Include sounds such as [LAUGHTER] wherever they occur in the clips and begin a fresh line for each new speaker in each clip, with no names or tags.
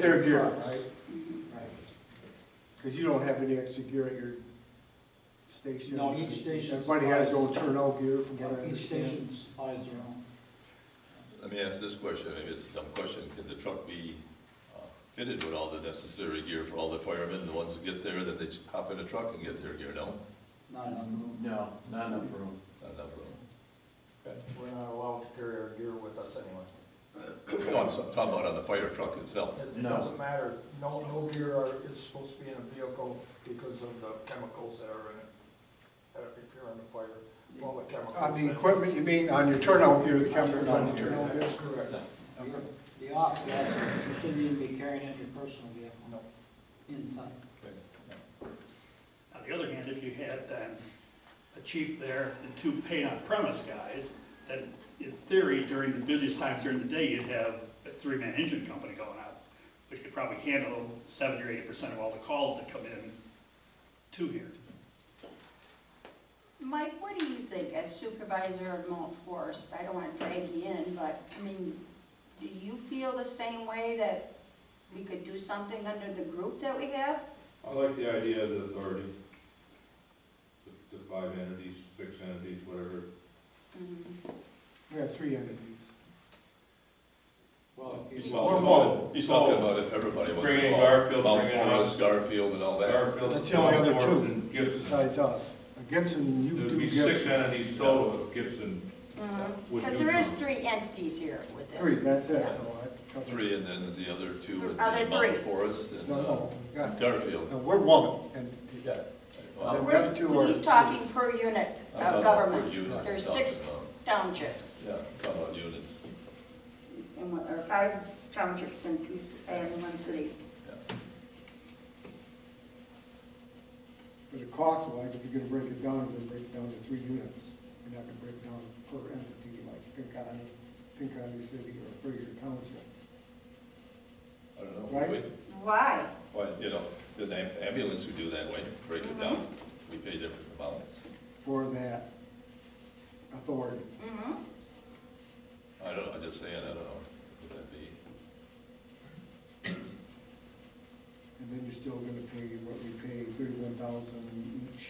their
truck,
gear.
Right, because you don't have any extra gear at your station.
No, each station
Everybody has their own
supplies-
turnout gear, from what I
Each station
understand.
supplies their own.
Let me ask this question, maybe it's a dumb question, can the truck be uh, fitted with all the necessary gear for all the firemen, the ones that get there, that they hop in a truck and get their gear, no?
Not enough room.
No, not enough room.
Not enough
We're not allowed to carry our gear with us anyway.
room. No, I'm s- talking about on the fire truck itself.
It- It
No.
doesn't matter, no, no gear are- is supposed to be in a vehicle because of the chemicals that are in it. Uh, If you're on the fire, all the chemicals.
On Uh, the equipment, you mean, on your turnout gear, the cameras on the turnout gear?
That's correct.
Okay.
The off gas, you shouldn't even be carrying it in your personal vehicle.
No.
Inside.
On the other hand, if you had then a chief there and two paid on premise guys, then in theory, during the busiest times during the day, you'd have a three-man engine company going out, which could probably handle seventy or eighty percent of all the calls that come in to here.
Mike, what do you think as supervisor of Mount Forest? I don't want to drag you in, but, I mean, do you feel the same way that we could do something under the group that we have?
I like the idea of the authority, the, the five entities, six entities, whatever.
We have three entities.
Well, if
He's
you-
talking
mobile.
about, he's talking about if everybody was
Bring in
involved.
Garfield,
Mount
bring in
Forest,
us.
Garfield and all that.
Garfield,
That's the only other two,
North, and Gibson.
Besides us, Gibson, you
There'd
do
be six
Gibson.
entities total if Gibson
Mm-hmm.
would do
Because there is
something.
three entities here with this.
Three, that's it. No, that covers-
Three, and then the other two would be
Other three.
Mount Forest and
No,
uh,
no, we got,
Garfield.
no, we're one entity.
Yeah.
But
Then
Well,
we're-
them two are-
He's talking per unit
I'm talking about
of
Uh, per
government.
unit
There's
itself,
six
uh,
townships,
Yeah, I'm talking about units.
and one- or five townships and two, and one city.
But the cost wise, if you're gonna break it down, you're gonna break it down to three units. You're not gonna break it down per entity like Pinkani, Pinkani City or Fraser Township.
I don't know.
Right.
Wait.
Why?
Well, you know, the am- ambulance we do that way, break it
Uh-huh.
down, we pay different amounts.
for that authority.
Mm-hmm.
I don't, I'm just saying, I don't know, would that be,
And then you're still gonna pay what we pay, thirty-one thousand each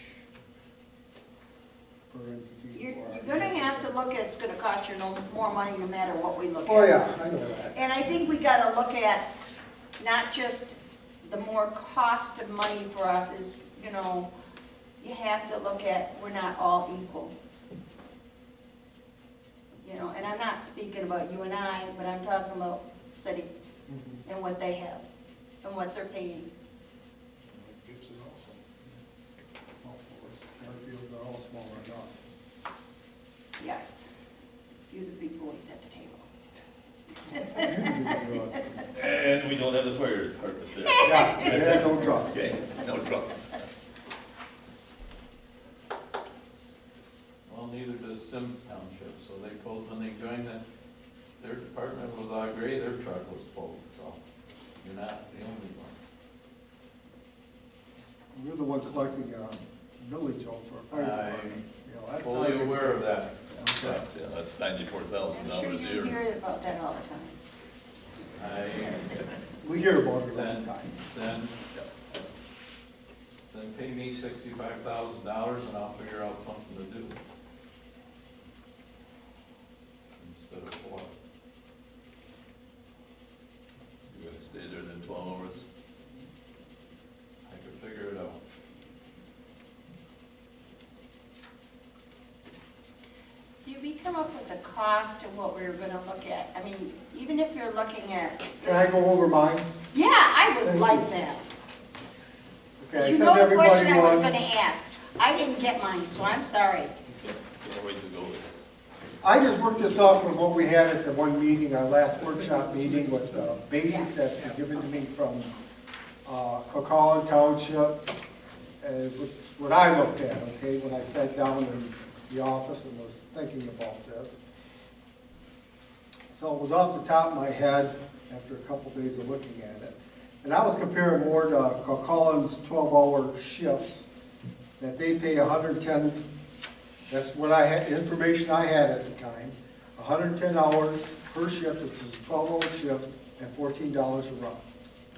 per entity.
You're,
or-
you're gonna have to look at, it's gonna cost you no more money no matter what we look at.
Oh, yeah, I know that.
And I think we gotta look at not just the more cost of money for us is, you know, you have to look at, we're not all equal. You know, and I'm not speaking about you and I, but I'm talking about city
Mhm.
and what they have and what they're paying.
Gibson also. All four, Fairfield, they're all smaller than us.
Yes, you're the big boys at the table. [LAUGHS]
and we don't have the fire department there.
Yeah, they had no truck.
Okay, no truck.
Well, neither does Sims Township, so they pulled, when they joined that, their department was all gray, their truck was pulled, so you're not the only ones.
We're the one collecting, uh, millage off for fire department. You know,
I'm
that's not a
fully
big
aware of
thing.
that.
Okay.
That's, yeah, that's ninety-four thousand
I'm sure
dollars a
you
year.
hear about that all the time.
I,
We hear about it all the
then,
time.
then, then pay me sixty-five thousand dollars and I'll figure out something to do. Instead of what?
You're gonna stay there then twelve hours?
I could figure it out.
Do we come up with a cost of what we're gonna look at? I mean, even if you're looking at,
Can I go over mine?
yeah, I
Thank
would
you.
like that.
Okay, I
You
sent
know the
everybody
question I was
one.
gonna ask. I didn't get mine, so I'm sorry.
Can't, can't wait to go with
I just worked this off from what we had at the one meeting, our last workshop meeting with the basics that were given to me from uh, Coquitlam Township, and it's what I looked at, okay, when I sat down in the office and was thinking about this. So it was off the top of my head after a couple days of looking at it. And I was comparing more to Coquitlam's 12-hour shifts, that they pay 110 that's what I had, information I had at the time, hundred and ten hours per shift, which is a twelve-hour shift, and fourteen dollars a run.